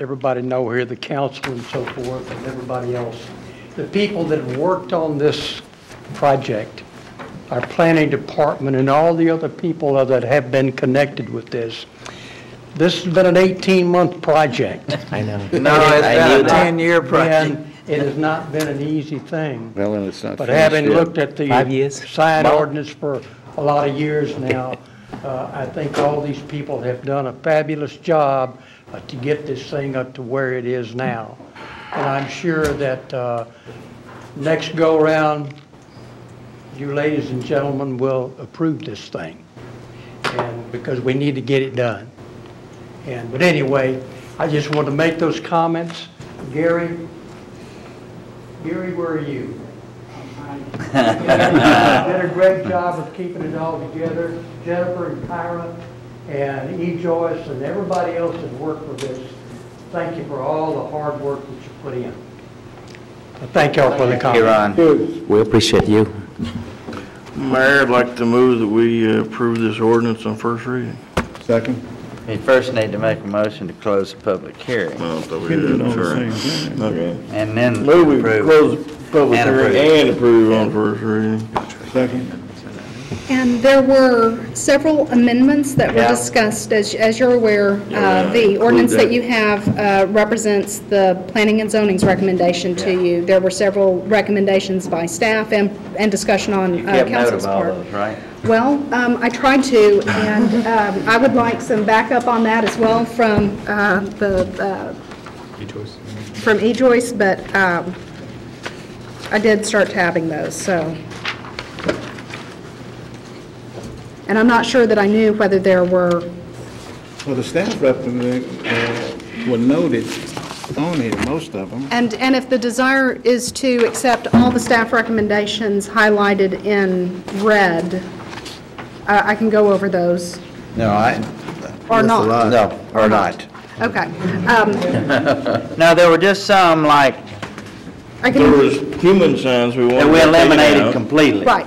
everybody know here, the council and so forth, and everybody else, the people that have worked on this project, our planning department, and all the other people that have been connected with this, this has been an 18-month project. I know. No, it's I been a knew that. ten-year project. And it has not been an easy thing. Well, and it's not But finished having yet. looked at the Five years? sign ordinance for a lot of years now, uh, I think all these people have done a fabulous job uh, to get this thing up to where it is now. And I'm sure that uh, next go-around, you ladies and gentlemen will approve this thing, and, because we need to get it done. And, but anyway, I just wanted to make those comments. Gary, Gary, where are you? Did a great job of keeping it all together. Jennifer and Kyra and E. Joyce and everybody else that worked for this, thank you for all the hard work that you put in. Thank y'all for the comments. Here on. We appreciate you. Mayor, I'd like to move that we uh, approve this ordinance on first reading. Second? We first need to make a motion to close the public hearing, No, I thought we Can do did, it I'm on the sorry. same thing. Okay. and then Move we approve. close the public And hearing approve. and approve on first reading. Second? And there were several amendments that were Yeah. discussed. As as you're aware, Yeah, uh, the include ordinance that. that you have uh, represents the Planning and Zoning's recommendation to Yeah. you. There were several recommendations by staff and and discussion You on uh, kept note of council's all part. those, right? Well, um, I tried to, and um, I would like some backup on that as well from uh, the, uh, from E-Joyce, but um, I did start tabbing those, so. And I'm not sure that I knew whether there were, Well, the staff representative uh, were noted on here, most of them. and, and if the desire is to accept all the staff recommendations highlighted in red, uh, I I can go over those, No, I. or not. No, or not. Okay. Um, No, there were just some like, I There can, was human signs we wanted that to we take eliminated out. completely. right,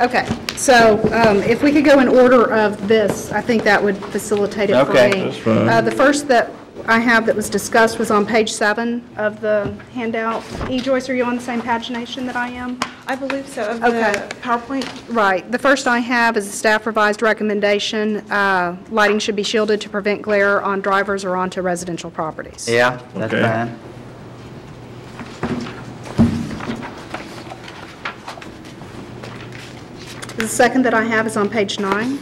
okay. So um, if we could go in order of this, I think that would facilitate it for me. Okay, that's fine. Uh, The first that I have that was discussed was on page seven of the handout. E. Joyce, are you on the same pagination that I am? I believe so, of Okay. the PowerPoint. Right. The first I have is a staff revised recommendation, uh, lighting should be shielded to prevent glare on drivers or onto residential properties. Yeah, that's Okay. fine. The second that I have is on page nine.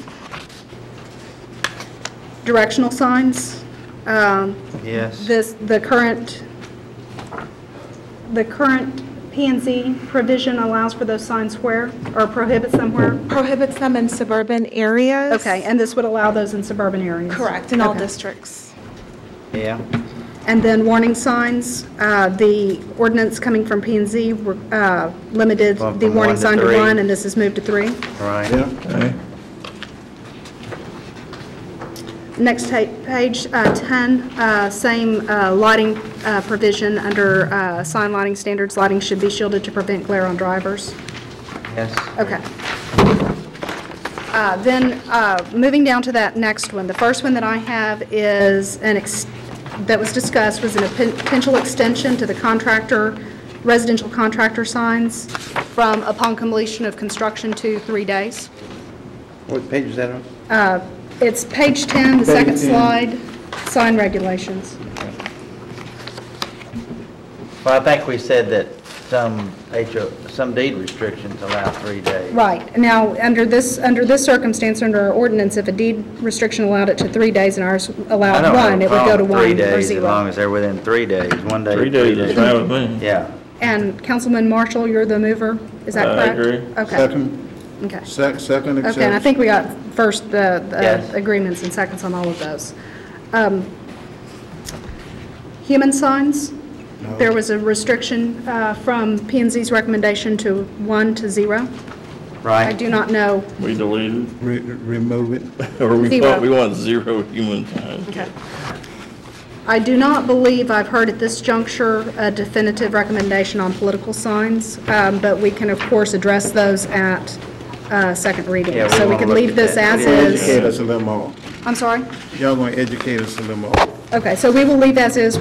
Directional signs. Um, Yes. This, the current, the current P and Z provision allows for those signs where, or prohibits them where? Prohibits them in suburban areas. Okay, and this would allow those in suburban areas? Correct, in all Okay. districts. Yeah. And then warning signs, uh, the ordinance coming from P and Z uh, limited Well, the from one warning to sign to three. one, and this is moved to three. Right. Yeah, Okay. Next ta- page, uh, 10, uh, same uh, lighting uh, provision under uh, sign lighting standards, lighting should be shielded to prevent glare on drivers. Yes. Okay. Uh, Then, uh, moving down to that next one, the first one that I have is an, ex- that was discussed, was a potential extension to the contractor, residential contractor signs from upon completion of construction to three days. What page is that on? Uh, It's page 10, the second Page 10. slide, sign regulations. Well, I think we said that some HO, some deed restrictions allow three days. Right. Now, under this, under this circumstance, under our ordinance, if a deed restriction allowed it to three days and ours I allowed don't have one, a it would go to problem with one three or days, as long zero. as they're within three days, one day. Three days is fine with me. Yeah. And Councilman Marshall, you're the mover, is that Uh, I correct? agree. Okay, second, okay. sec- second Okay, and I exception. think we got first uh, uh, Yes. agreements and seconds on all of those. Um, Human signs, there was a restriction uh, from p and Z's recommendation to one to zero. I Right. do not know We deleted, Re- Remove it. or we Zero. thought we wanted zero human signs. I do not believe I've heard at this juncture a definitive recommendation on political signs, um, but we can, of course, address those at uh, second reading. Yeah, we So we wanna can look leave at this that. as is. Educate us a little more. I'm sorry? Y'all gonna educate us a little more. Okay, so we will leave as is